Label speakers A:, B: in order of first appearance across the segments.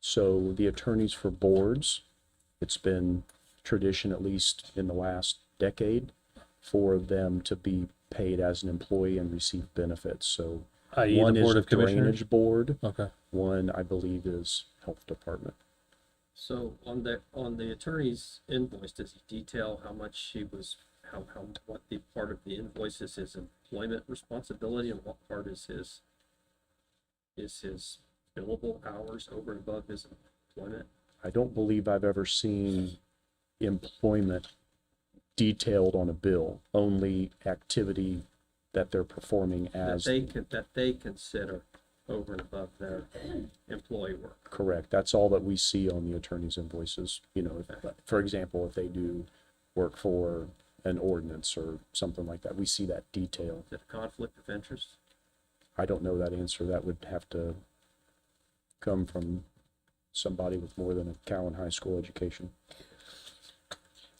A: So the attorneys for boards, it's been tradition, at least in the last decade, for them to be paid as an employee and receive benefits. So
B: i.e.
A: one
B: E, the Board
A: is
B: of Commissioners?
A: drainage board,
B: Okay.
A: one I believe is health department.
C: So on the, on the attorney's invoice, does he detail how much he was, how, how, what the part of the invoice is his employment responsibility and what part is his, is his billable hours over and above his employment?
A: I don't believe I've ever seen employment detailed on a bill, only activity that they're performing
C: That
A: as
C: they can, that they consider over and above their employee work.
A: correct. That's all that we see on the attorney's invoices. You know, if, for example, if they do work for an ordinance or something like that, we see that detail.
C: Is it a conflict of interest?
A: I don't know that answer. That would have to come from somebody with more than a Cowan High School education.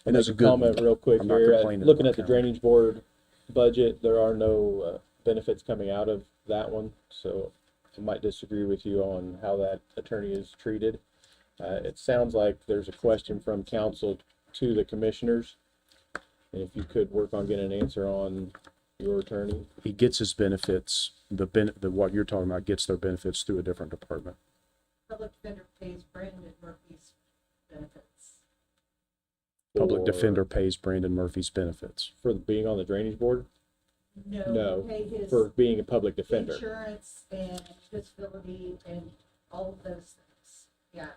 A: And that's a good one.
D: comment real quick
A: I'm not
D: here. Uh,
A: complaining
D: Looking
A: about
D: at the
A: that.
D: drainage board budget, there are no uh, benefits coming out of that one, so I might disagree with you on how that attorney is treated. Uh, It sounds like there's a question from council to the commissioners. And If you could work on getting an answer on your attorney,
A: he gets his benefits, the ben, the, what you're talking about gets their benefits through a different department.
E: Public defender pays Brandon Murphy's benefits.
A: Public
D: Or-
A: defender pays Brandon Murphy's benefits.
D: for being on the drainage board, No,
E: No, pay his
D: for being a public defender.
E: insurance and disability and all of those things. Yeah,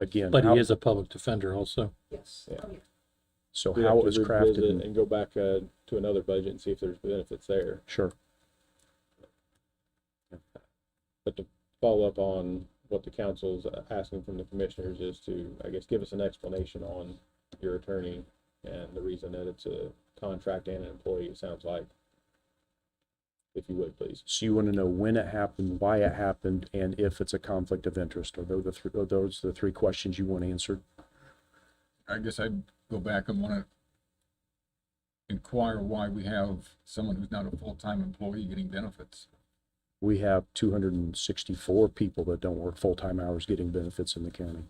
A: Again,
B: But
A: how-
B: he is a public defender also.
E: yes,
D: Yeah.
E: oh yeah.
A: so
D: We'd have
A: how it
D: to
A: was
D: revisit
A: crafted, and-
D: And go back uh, to another budget and see if there's benefits there.
A: sure.
D: But to follow up on what the council's asking from the commissioners is to, I guess, give us an explanation on your attorney and the reason that it's a contract and an employee, it sounds like. If you would, please.
A: So you want to know when it happened, why it happened, and if it's a conflict of interest. Are those the, thr- are those the three questions you want answered?
F: I guess I'd go back and wanna inquire why we have someone who's not a full-time employee getting benefits.
A: We have two hundred and sixty-four people that don't work full-time hours getting benefits in the county.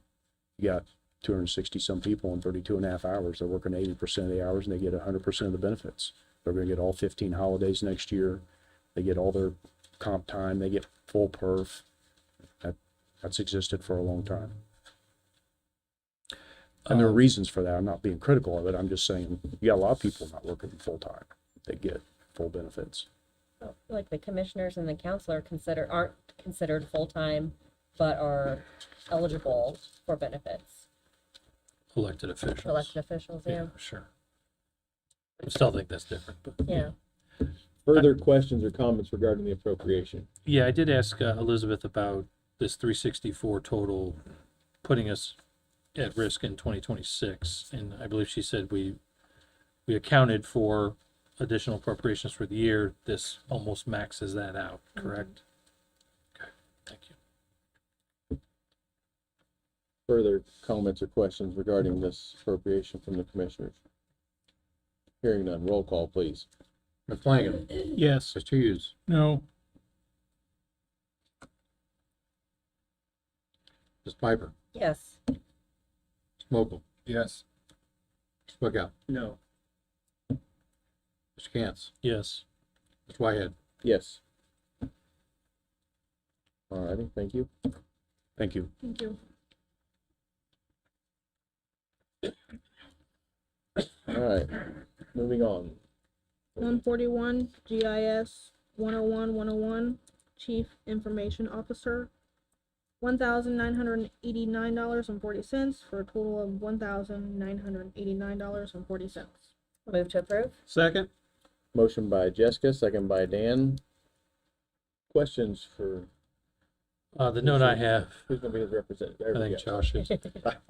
A: You got two hundred and sixty-some people on 32 and a half hours. They're working eighty percent of the hours and they get hundred percent of the benefits. They're gonna get all fifteen holidays next year. They get all their comp time. They get full perf. That, that's existed for a long time. And there are
B: Um,
A: reasons for that. I'm not being critical of it. I'm just saying, you got a lot of people not working full-time. They get full benefits.
G: Well, Like the commissioners and the council are considered, aren't considered full-time, but are eligible for benefits,
B: Elected officials.
G: elected officials, yeah,
B: Yeah, sure. I still think that's different, but.
G: yeah.
D: Further questions or comments regarding the appropriation?
B: Yeah, I did ask uh, Elizabeth about this three sixty-four total, putting us at risk in twenty twenty-six, and I believe she said we, we accounted for additional appropriations for the year, this almost maxes that out, correct? Okay, thank you.
D: Further comments or questions regarding this appropriation from the commissioners? Hearing none, roll call, please.
H: Ms. Flanagan.
B: Yes.
H: Mr. Hughes.
B: No.
H: Ms. Piper.
G: Yes,
H: Ms. Mokel.
F: Yes.
H: Ms. Bookout.
C: No,
H: Mr. Cantz.
B: Yes.
H: Ms. Whitehead.
D: Yes. All righty, thank you.
A: Thank you.
E: Thank you.
D: All right, moving on.
I: One forty-one, GIS, one oh one, one oh one, Chief Information Officer. One thousand nine hundred and eighty-nine dollars and forty cents for a total of one thousand nine hundred and eighty-nine dollars and forty cents.
G: move to approve?
C: second?
D: Motion by Jessica, second by Dan. Questions for,
B: Uh, the note I have,
D: who's gonna be his representative?
B: I
D: There we
B: think
D: go.
B: Josh is,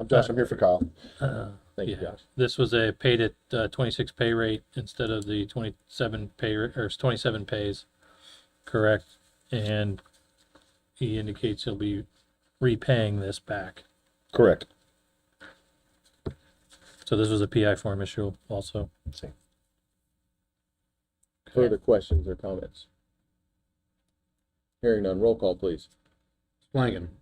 H: I'm Josh. I'm here for Kyle.
B: uh,
D: Thank you,
B: Yeah.
D: Josh.
B: This was a paid at uh, twenty-six pay rate instead of the twenty-seven pay, ra- or it's twenty-seven pays, correct? And he indicates he'll be repaying this back.
H: Correct.
B: So this was a PI form issue also.
D: Further questions or comments? Hearing none, roll call, please.
H: Flanagan.